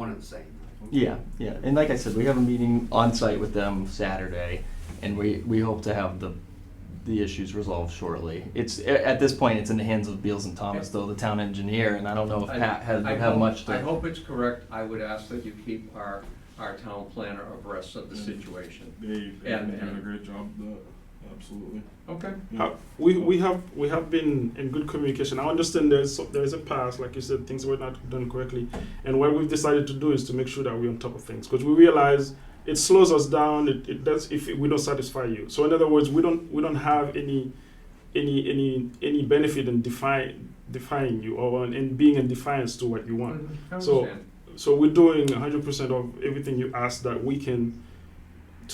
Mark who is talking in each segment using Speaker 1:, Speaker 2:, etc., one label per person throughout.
Speaker 1: one and the same.
Speaker 2: Yeah, yeah, and like I said, we have a meeting on site with them Saturday, and we, we hope to have the, the issues resolved shortly. It's, a- at this point, it's in the hands of Beals and Thomas, though, the town engineer, and I don't know if
Speaker 3: I-
Speaker 2: Pat has,
Speaker 3: I
Speaker 2: would
Speaker 3: hope-
Speaker 2: have much to.
Speaker 3: I hope it's correct. I would ask that you keep our, our town planner abreast of the situation.
Speaker 4: They, they
Speaker 3: And-
Speaker 4: did a
Speaker 3: and-
Speaker 4: great job. Though. Absolutely.
Speaker 3: Okay.
Speaker 5: Uh, we we have we have been in good communication. I understand there's there's a past, like you said, things were not done correctly, and what we've decided to do is to make sure that we're on top of things because we realize it slows us down. It, it does if we don't satisfy you. So in other words, we don't we don't have any any any any benefit in define defying you or in- in being in defiance to what you want
Speaker 3: I
Speaker 5: So-
Speaker 3: understand.
Speaker 5: so we're doing 100% of everything you asked that we can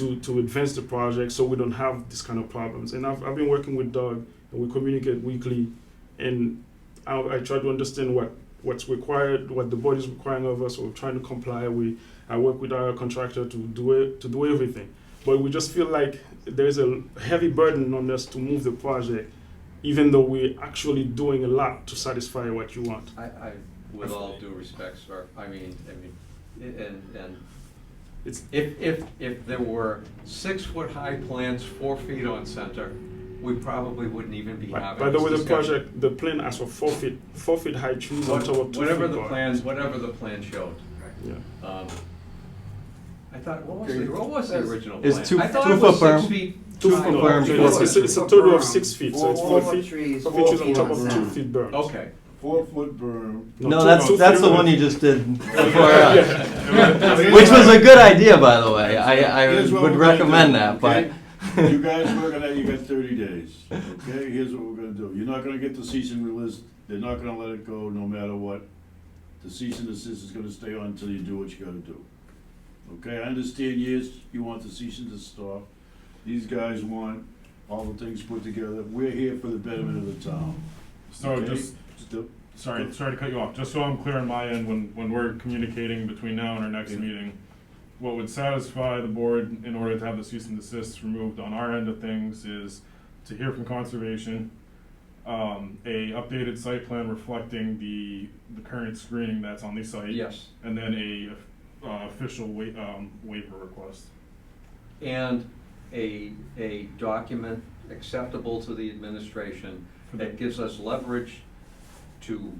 Speaker 5: to to advance the project so we don't have this kind of problems and i've, I've been working with doug and we communicate weekly and I, I try to understand what what's required what the board is requiring of us we're trying to comply we i work with our contractor to do it to do everything but we just feel like there's a heavy burden on us to move the project even though we're actually doing a lot to satisfy what you want
Speaker 3: I, I, with all due respect, sir, I mean, I mean, i- and, and
Speaker 5: it's
Speaker 3: if, if, if there were six-foot-high plants, four feet on center, we probably wouldn't even be
Speaker 5: By
Speaker 3: having
Speaker 5: by the
Speaker 3: this
Speaker 5: way, the
Speaker 3: discussion.
Speaker 5: project, the plan asked for four feet, four feet high trees on
Speaker 3: What-
Speaker 5: top of two feet.
Speaker 3: Whatever the
Speaker 5: wide.
Speaker 3: plans, whatever the plan showed.
Speaker 5: Yeah.
Speaker 3: Um, I thought, what was the, what was the
Speaker 1: That's-
Speaker 3: original plan?
Speaker 2: It's two-
Speaker 3: I thought
Speaker 2: two
Speaker 3: it was
Speaker 2: foot
Speaker 3: six
Speaker 2: berm.
Speaker 3: feet.
Speaker 5: Two
Speaker 3: tall.
Speaker 5: feet
Speaker 2: Triangle.
Speaker 5: berm,
Speaker 2: Triangle.
Speaker 5: it's, it's, it's a total of six feet, so it's
Speaker 1: Four
Speaker 5: four feet,
Speaker 1: trees,
Speaker 5: four
Speaker 1: four
Speaker 5: feet on
Speaker 1: feet
Speaker 5: top
Speaker 1: on
Speaker 5: of two
Speaker 1: center.
Speaker 5: feet berms.
Speaker 3: Okay.
Speaker 1: Four foot berm.
Speaker 2: No,
Speaker 5: two-
Speaker 2: that's,
Speaker 5: two
Speaker 2: that's
Speaker 5: feet
Speaker 2: the
Speaker 5: berm.
Speaker 2: one you just did before
Speaker 5: Yeah.
Speaker 2: us,
Speaker 1: Yeah.
Speaker 2: which was a good idea, by the way, I, I
Speaker 1: Here's what
Speaker 2: would
Speaker 1: we're gonna
Speaker 2: recommend
Speaker 1: do,
Speaker 2: that, but.
Speaker 1: okay? You guys work on that, you got thirty days, okay? Here's what we're gonna do. You're not gonna get the cease and desist, they're not gonna let it go no matter what. The cease and desist is gonna stay on until you do what you gotta do. Okay, I understand, yes, you want the cease and desist off. These guys want all the things put together. We're here for the betterment of the town.
Speaker 4: So
Speaker 1: okay?
Speaker 4: just
Speaker 1: Still-
Speaker 4: sorry, sorry to cut you off. Just so I'm clear on my end, when when we're communicating between now and our next
Speaker 1: Yeah.
Speaker 4: meeting, what would satisfy the board in order to have the cease and desist removed on our end of things is to hear from conservation, um, a updated site plan reflecting the the current screening that's on the site.
Speaker 3: Yes.
Speaker 4: And then a uh, official wa- um, waiver request.
Speaker 3: And a, a document acceptable to the administration
Speaker 4: For the-
Speaker 3: that gives us leverage to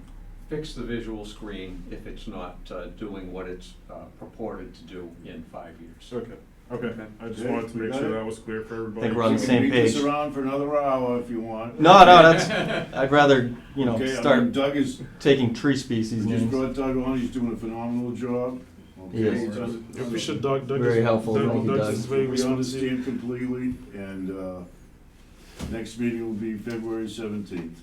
Speaker 3: fix the visual screen if it's not uh, doing what it's uh, purported to do in five years.
Speaker 4: Okay, okay.
Speaker 3: Okay.
Speaker 4: I just
Speaker 1: Okay,
Speaker 4: wanted to
Speaker 1: we
Speaker 4: make
Speaker 1: got
Speaker 4: sure
Speaker 1: it?
Speaker 4: that was clear for everybody.
Speaker 2: Think we're on the
Speaker 1: You can
Speaker 2: same
Speaker 1: beat
Speaker 2: page.
Speaker 1: this around for another hour if you want.
Speaker 2: No, no, that's, I'd rather, you know,
Speaker 1: Okay, I mean,
Speaker 2: start
Speaker 1: Doug is,
Speaker 2: taking tree species
Speaker 1: We just
Speaker 2: names.
Speaker 1: brought Doug on, he's doing a phenomenal job. Okay,
Speaker 2: Yes.
Speaker 1: he does it-
Speaker 5: Yeah, we should, Doug, Doug is.
Speaker 2: Very helpful,
Speaker 5: Doug-
Speaker 2: thank you, Doug.
Speaker 5: is very
Speaker 1: We
Speaker 5: responsive.
Speaker 1: understand completely, and, uh, next meeting will be February seventeenth.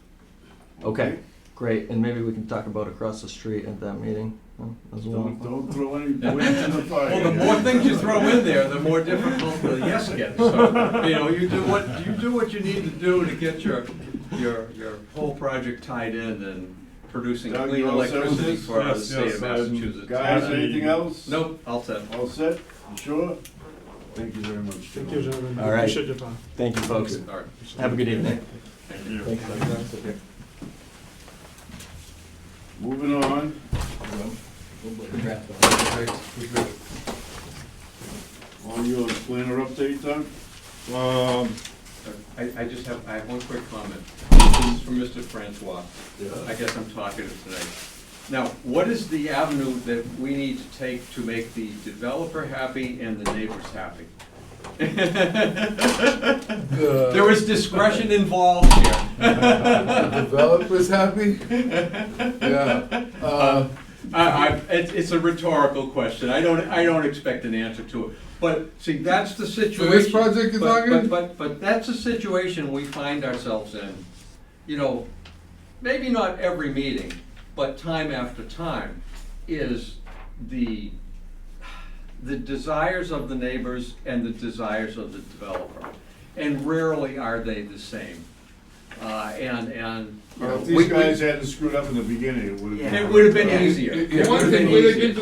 Speaker 2: Okay, great, and maybe we can talk about across the street at that meeting huh, as well.
Speaker 1: Don't, don't throw any wind in the fire.
Speaker 3: Well, the more things you throw in there, the more difficult the yes gets. So, you know, you do what, you do what you need to do to get your, your, your whole project tied in and producing
Speaker 1: Doug,
Speaker 3: clean
Speaker 1: you all set with
Speaker 3: electricity
Speaker 1: this?
Speaker 3: for the
Speaker 4: Yes,
Speaker 3: state of
Speaker 4: yes, I'm-
Speaker 3: Massachusetts.
Speaker 1: Guys, anything else?
Speaker 3: Nope, all set.
Speaker 1: All set? You sure? Thank you very much.
Speaker 5: Thank you, gentlemen,
Speaker 2: All right.
Speaker 5: appreciate your time.
Speaker 2: Thank you, folks.
Speaker 3: All right.
Speaker 2: Have a good evening.
Speaker 4: Thank you.
Speaker 1: Moving on. All your planner update, Doug?
Speaker 4: Um,
Speaker 3: I, I just have, I have one quick comment. This is from Mr. Francois. I guess I'm talkative tonight. Now, what is the avenue that we need to take to make the developer happy and the neighbors happy? There was discretion involved here.
Speaker 6: Developers happy? Yeah. Uh,
Speaker 3: I, I, it's, it's a rhetorical question, I don't, I don't expect an answer to it, but, see, that's the situation.
Speaker 6: project you're
Speaker 3: but-
Speaker 6: talking?
Speaker 3: But, but, but that's the situation we find ourselves in, you know, maybe not every meeting, but time after time, is the, the desires of the neighbors and the desires of the developer, and rarely are they the same. Uh, and, and. you know,
Speaker 1: If
Speaker 3: we-
Speaker 1: these
Speaker 3: we-
Speaker 1: guys hadn't screwed up in the beginning, it would have been.
Speaker 3: It would have been easier. It
Speaker 6: Yeah.
Speaker 3: would have been easier.
Speaker 6: If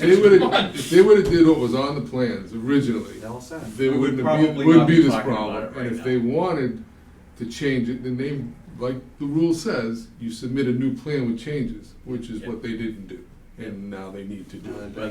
Speaker 6: they would've, if they would've did what was on the plans originally,
Speaker 3: We
Speaker 6: there
Speaker 3: would
Speaker 6: wouldn't have
Speaker 3: probably
Speaker 6: be, wouldn't
Speaker 3: not
Speaker 6: be
Speaker 3: be
Speaker 6: this
Speaker 3: talking about
Speaker 6: problem.
Speaker 3: it right
Speaker 6: And
Speaker 3: now.
Speaker 6: if they wanted to change it, then they, like the rule says, you submit a new plan with changes, which is
Speaker 3: Yeah. Uh,
Speaker 6: what they didn't do. And now they need to do it.